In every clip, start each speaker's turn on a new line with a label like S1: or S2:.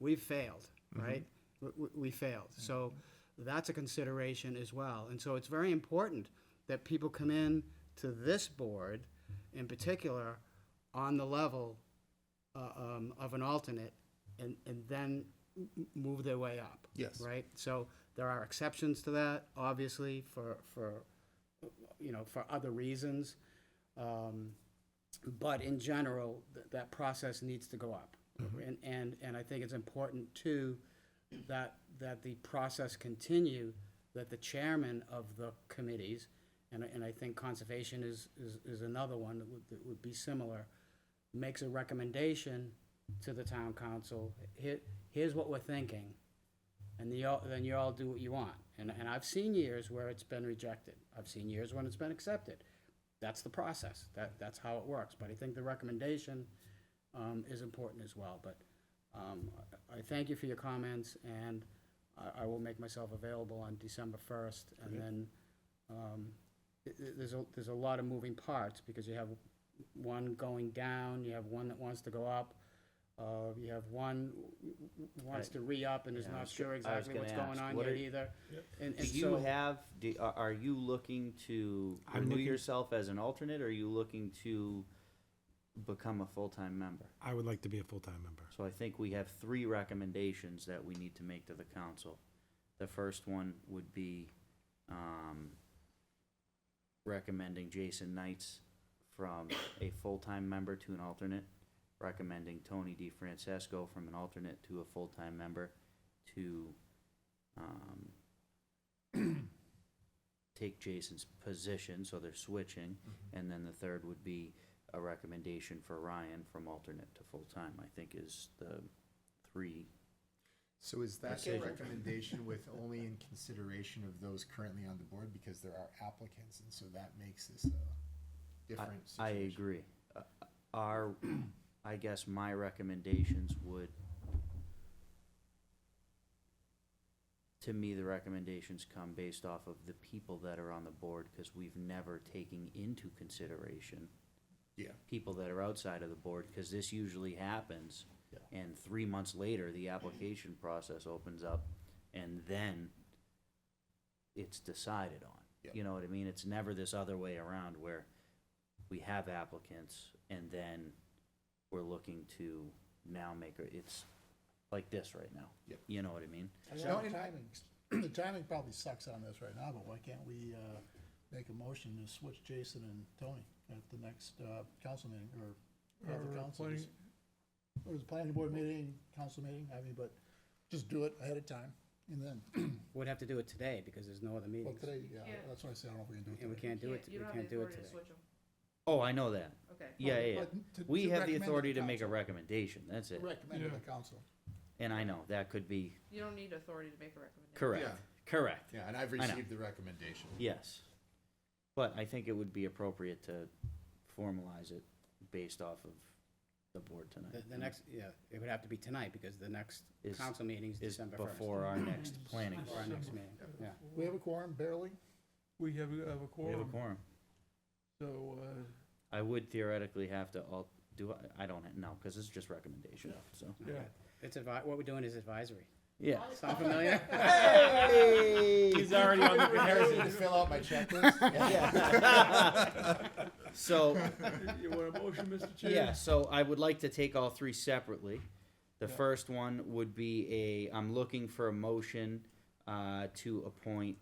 S1: we've failed, right? W- w- We failed. So that's a consideration as well. And so it's very important that people come in to this board in particular on the level uh, um, of an alternate and, and then m- m- move their way up.
S2: Yes.
S1: Right? So there are exceptions to that, obviously, for, for, you know, for other reasons. Um, But in general, th- that process needs to go up. And, and, and I think it's important too, that, that the process continue, that the chairman of the committees, and, I- and I think conservation is, is, is another one that would, that would be similar, makes a recommendation to the town council, here, here's what we're thinking, and the, all- then you all do what you want. And, and I've seen years where it's been rejected, I've seen years when it's been accepted. That's the process, that, that's how it works, but I think the recommendation, um, is important as well, but, um, I I thank you for your comments, and I, I will make myself available on December first, and then, um, th- th- there's a, there's a lot of moving parts, because you have one going down, you have one that wants to go up, uh, you have one w- w- w- wants to re-up and is
S3: Yeah, I
S1: not
S3: was go-
S1: sure
S3: I was
S1: exactly what's
S3: gonna
S1: going
S3: ask,
S1: on
S3: what
S1: yet
S3: are-
S1: either. And,
S3: Do
S1: and
S3: you
S1: so,
S3: have, do, are are you looking to
S2: I'm
S3: renew
S2: looking-
S3: yourself as an alternate, or are you looking to become a full-time member?
S2: I would like to be a full-time member.
S3: So I think we have three recommendations that we need to make to the council. The first one would be, um, recommending Jason Knights from a full-time member to an alternate, recommending Tony DeFrancesco from an alternate to a full-time member to, um, take Jason's position, so they're switching. And then the third would be a recommendation for Ryan from alternate to full-time, I think is the three.
S4: So is that the
S3: Decision.
S4: recommendation with only in consideration of those currently on the board, because there are applicants, and so that makes this a
S3: I-
S4: different
S3: I
S4: situation?
S3: agree. Uh, Our, I guess my recommendations would, to me, the recommendations come based off of the people that are on the board, because we've never taken into consideration
S4: Yeah,
S3: people that are outside of the board, because this usually happens.
S4: Yeah.
S3: And three months later, the application process opens up, and then it's decided on.
S4: Yeah.
S3: You know what I mean? It's never this other way around where we have applicants, and then we're looking to now make, a- it's like this right now.
S4: Yep.
S3: You know what I mean?
S5: I mean,
S6: No,
S5: the
S6: and-
S5: timing, the timing probably sucks on this right now, but why can't we, uh, make a motion to switch Jason and Tony at the next, uh, council meeting, or, or the council? just- Or the planning board meeting, council meeting, I mean, but just do it ahead of time, and then,
S1: we'd have to do it today, because there's no other
S5: well,
S1: meetings,
S5: today, yeah,
S6: Yeah.
S5: that's what I said, I don't know if we can do it
S1: and we
S5: today.
S1: can't do it, we
S6: You don't have
S1: can't
S6: the
S1: do it
S6: authority to
S1: today.
S6: switch them,
S3: Oh, I know that.
S6: okay.
S3: Yeah, yeah, yeah.
S5: But to-
S3: We
S5: to
S3: have the
S5: recommend
S3: authority
S5: the
S3: to make a
S5: council.
S3: recommendation, that's it.
S5: Recommend to the council.
S3: And I know, that could be,
S6: You don't need authority to make a recommendation.
S3: correct, correct.
S4: yeah, and I've
S3: know.
S4: received the recommendation.
S3: Yes. But I think it would be appropriate to formalize it based off of the board
S1: The,
S3: tonight.
S1: the next, yeah, it would have to be tonight, because the next
S3: Is-
S1: council meeting's
S3: Is
S1: December first.
S3: before our next planning.
S1: Or our next meeting, yeah.
S5: We have a quorum, barely,
S7: We have, a- have a
S3: We have a
S7: quorum,
S3: quorum.
S7: so, uh,
S3: I would theoretically have to all, do, I- I don't know, because it's just recommendation, so.
S7: yeah.
S1: It's advi, what we're doing is advisory.
S3: Yeah.
S1: Sound familiar?
S3: He's already on the
S4: Harrison, to fill out my checklist?
S3: So,
S7: You want a motion, Mr. Chair?
S3: yeah, so I would like to take all three separately. The
S7: Yeah.
S3: first one would be a, I'm looking for a motion uh, to appoint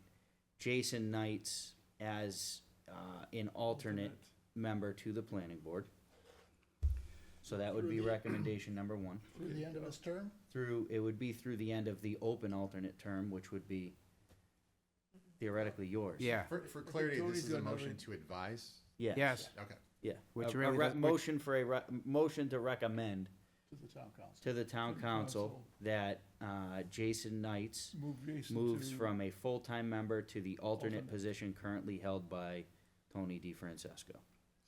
S3: Jason Knights as uh, an alternate member to the planning board. So that would be recommendation number one.
S5: through the end of this term,
S3: Through, it would be through the end of the open alternate term, which would be theoretically yours.
S1: Yeah,
S4: For, for clarity,
S7: Tony's
S4: this is a
S7: done
S4: motion
S7: already.
S4: to advise,
S3: Yes.
S1: yes,
S4: okay.
S3: Yeah.
S1: Which
S3: A- a
S1: really
S3: re-
S1: does- which-
S3: Motion for a, re- motion to recommend
S5: to the town council.
S3: to the town
S7: Town
S3: council
S7: council.
S3: that uh, Jason Knights
S7: Move Jason to.
S3: moves from a full-time member to the alternate
S7: Alternate.
S3: position currently held by Tony DeFrancesco.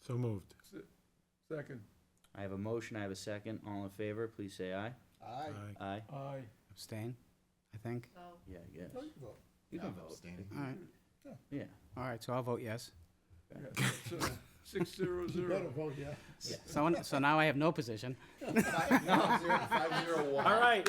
S2: So moved.
S7: se- Second,
S3: I have a motion, I have a second. All in favor, please say aye.
S5: Aye.
S2: Aye.
S3: Aye?
S7: aye.
S1: abstain, I think.
S6: So,
S3: Yeah, I guess.
S5: No, you vote.
S3: You
S4: Yeah,
S3: can
S4: I'm
S3: vote.
S4: abstaining.
S1: All right,
S3: Yeah.
S1: all right, so I'll vote yes.
S7: Yeah, so, Six zero
S5: You better
S7: zero.
S5: vote, yeah.
S1: So, so now I have no position.
S4: Five- no, zero- five, zero, one.
S3: right.